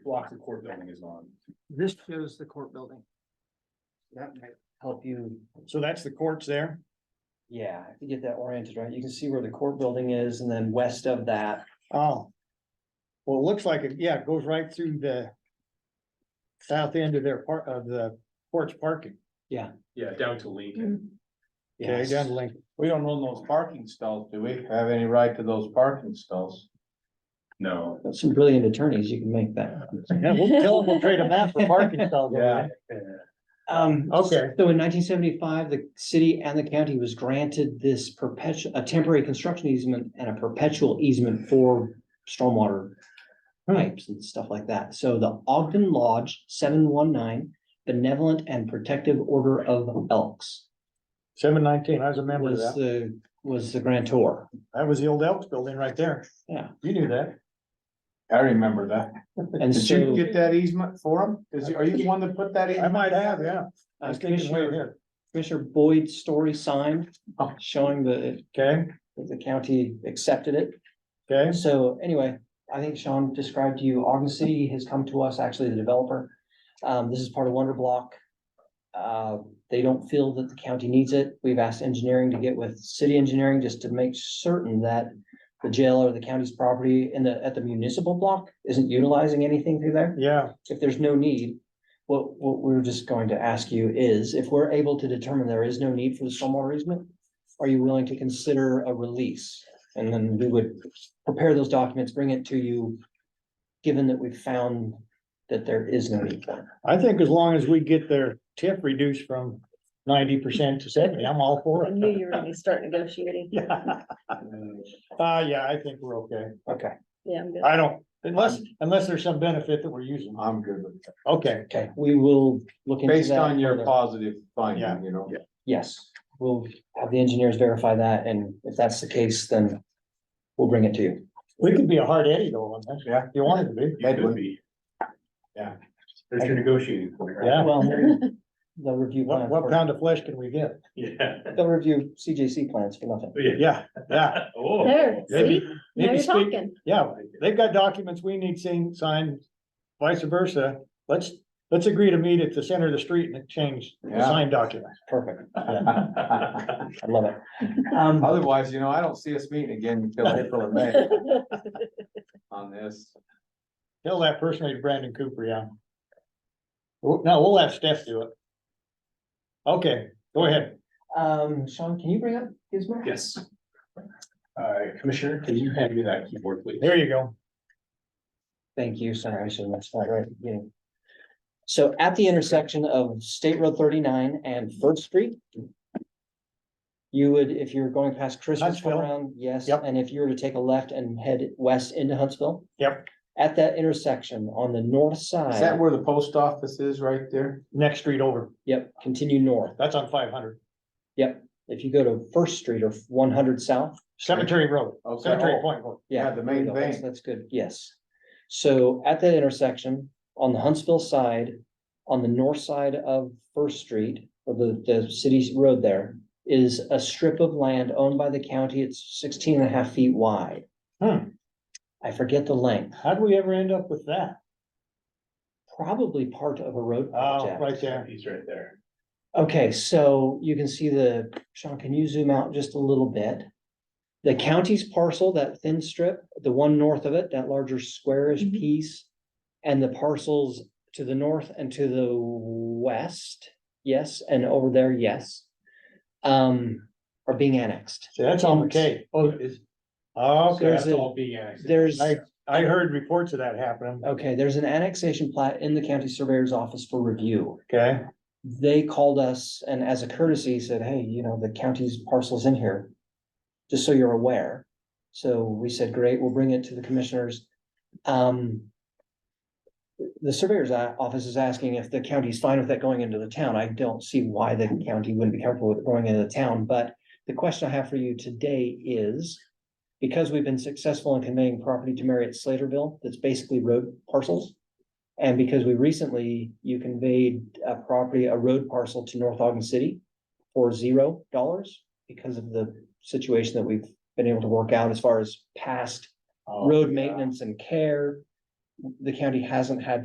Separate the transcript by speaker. Speaker 1: block the court building is on.
Speaker 2: This shows the court building.
Speaker 3: That might help you,
Speaker 1: So that's the courts there?
Speaker 3: yeah, if you get that oriented right, you can see where the court building is and then west of that.
Speaker 1: Oh. Well, it looks like it, yeah, it goes right through the south end of their part of the porch parking.
Speaker 3: Yeah.
Speaker 1: Yeah, down to
Speaker 3: Mm.
Speaker 1: Lincoln. Okay,
Speaker 3: yes.
Speaker 1: down to Lincoln.
Speaker 4: We don't own those parking stalls, do we? Have any right to those parking stalls?
Speaker 1: No.
Speaker 3: Got Some brilliant attorneys, you can make that.
Speaker 1: Yeah, we'll tell them we'll trade them out for parking stalls.
Speaker 4: Yeah.
Speaker 3: Um.
Speaker 1: Okay.
Speaker 3: So in nineteen seventy-five, the city and the county was granted this perpetual, a temporary construction easement and a perpetual easement for stormwater pipes and stuff like that. So the Ogden Lodge, seven one nine, Benevolent and Protective Order of Elks
Speaker 1: Seven nineteen, I was a member of
Speaker 3: was
Speaker 1: that.
Speaker 3: the, was the grantor.
Speaker 1: That was the old Elks building right there.
Speaker 3: Yeah.
Speaker 1: You knew that.
Speaker 4: I remember that.
Speaker 3: And
Speaker 4: Did you
Speaker 3: so
Speaker 4: get that easement for them? Is, are you the one that put that?
Speaker 1: I
Speaker 4: easement?
Speaker 1: might have, yeah. I
Speaker 3: uh,
Speaker 1: was thinking way
Speaker 3: Commissioner,
Speaker 1: ahead.
Speaker 3: Commissioner Boyd's story sign
Speaker 4: Oh.
Speaker 3: showing that
Speaker 1: Okay,
Speaker 3: the county accepted it.
Speaker 1: okay.
Speaker 3: So anyway, I think Sean described to you, Ogden City has come to us, actually the developer. Um, this is part of Wonder Block. Uh, they don't feel that the county needs it. We've asked engineering to get with city engineering just to make certain that the jail or the county's property in the, at the municipal block isn't utilizing anything through there
Speaker 1: Yeah,
Speaker 3: if there's no need, what, what we're just going to ask you is, if we're able to determine there is no need for the stormwater easement, are you willing to consider a release? And then we would prepare those documents, bring it to you, given that we've found that there is no need for it.
Speaker 1: I think as long as we get their tip reduced from ninety percent to seventy, I'm all for
Speaker 5: I knew
Speaker 1: it.
Speaker 5: you were gonna start negotiating.
Speaker 1: Yeah. Uh, yeah, I think we're okay.
Speaker 3: Okay,
Speaker 5: Yeah, I'm good.
Speaker 1: I don't, unless, unless there's some benefit that we're using.
Speaker 4: I'm good with that.
Speaker 1: Okay,
Speaker 3: okay, we will look into that.
Speaker 4: Based on your
Speaker 3: further.
Speaker 4: positive
Speaker 1: Yeah.
Speaker 4: finding, you know?
Speaker 3: Yes, we'll have the engineers verify that, and if that's the case, then we'll bring it to you.
Speaker 1: we could be a hard Eddie though on this.
Speaker 4: Yeah.
Speaker 1: If You wanted to be.
Speaker 4: That would be. Yeah. There's your negotiating point,
Speaker 1: Yeah.
Speaker 3: Well, they'll review.
Speaker 1: What,
Speaker 3: plan
Speaker 1: what
Speaker 3: first.
Speaker 1: pound of flesh can we get?
Speaker 6: Yeah.
Speaker 3: They'll review CJC plans for nothing.
Speaker 1: Yeah, yeah,
Speaker 6: Oh.
Speaker 5: There, see, now
Speaker 1: maybe
Speaker 5: you're
Speaker 1: speak-
Speaker 5: talking.
Speaker 1: yeah. They've got documents we need seen, signed, vice versa. Let's, let's agree to meet at the center of the street and exchange the
Speaker 4: Yeah.
Speaker 1: signed document.
Speaker 3: Perfect.
Speaker 4: yeah.
Speaker 3: I love it. Um,
Speaker 4: Otherwise, you know, I don't see us meeting again until April or May on this.
Speaker 1: Tell that person it's Brandon Cooper, yeah. Well, No, we'll have Steph do it. Okay, go ahead.
Speaker 3: um, Sean, can you bring up Gizmo?
Speaker 6: Yes. Uh, Commissioner, can you hand me that keyboard, please?
Speaker 1: There you go.
Speaker 3: Thank you. Sorry, I should have mentioned that right at the beginning. So at the intersection of State Road thirty-nine and First Street. You would, if you're going past Christmas
Speaker 1: Huntsville.
Speaker 3: around, yes,
Speaker 1: Yep.
Speaker 3: and if you were to take a left and head west into Huntsville.
Speaker 1: Yep.
Speaker 3: At that intersection on the north
Speaker 4: Is that
Speaker 3: side,
Speaker 4: where the post office is right there?
Speaker 1: Next street over.
Speaker 3: yep, continue north.
Speaker 1: That's on five hundred.
Speaker 3: If you go to First Street or one hundred south,
Speaker 1: Cemetery Road,
Speaker 4: Okay. Oh,
Speaker 1: Cemetery Point Road.
Speaker 3: yeah.
Speaker 4: the
Speaker 3: There you
Speaker 4: main
Speaker 3: go. That's-
Speaker 4: thing.
Speaker 3: That's good, yes. So at that intersection, on the Huntsville side, on the north side of First Street, or the, the city's road there, is a strip of land owned by the county. It's 16 and a half feet wide.
Speaker 1: Hmm.
Speaker 3: I forget the length,
Speaker 1: How'd we ever end up with that?
Speaker 3: probably part of a road
Speaker 1: Oh,
Speaker 3: project.
Speaker 1: right there.
Speaker 6: He's right there.
Speaker 3: Okay, so you can see the, Sean, can you zoom out just a little bit? The county's parcel, that thin strip, the one north of it, that larger squarish
Speaker 5: Mhm.
Speaker 3: piece. And the parcels to the north and to the west, yes, and over there, yes. Um, are being annexed.
Speaker 1: See, that's on McKay.
Speaker 3: Oh,
Speaker 1: Okay,
Speaker 3: There's
Speaker 6: That's
Speaker 3: a-
Speaker 6: all being asked.
Speaker 3: There's,
Speaker 1: I, I heard reports of that happening.
Speaker 3: okay, there's an annexation plat in the county surveyor's office for review.
Speaker 1: Okay,
Speaker 3: they called us and as a courtesy said, hey, you know, the county's parcel's in here. Just so you're aware. So we said, great, we'll bring it to the commissioners. Um. The surveyor's o- office is asking if the county's fine with that going into the town. I don't see why the county wouldn't be comfortable with it going into the town, but the question I have for you today is. Because we've been successful in conveying property to Marriott Slaterville, that's basically road parcels. And because we recently, you conveyed a property, a road parcel to North Ogden City for zero dollars because of the situation that we've been able to work out as
Speaker 6: Oh,
Speaker 4: Oh,
Speaker 3: far as past road maintenance and care. The county hasn't had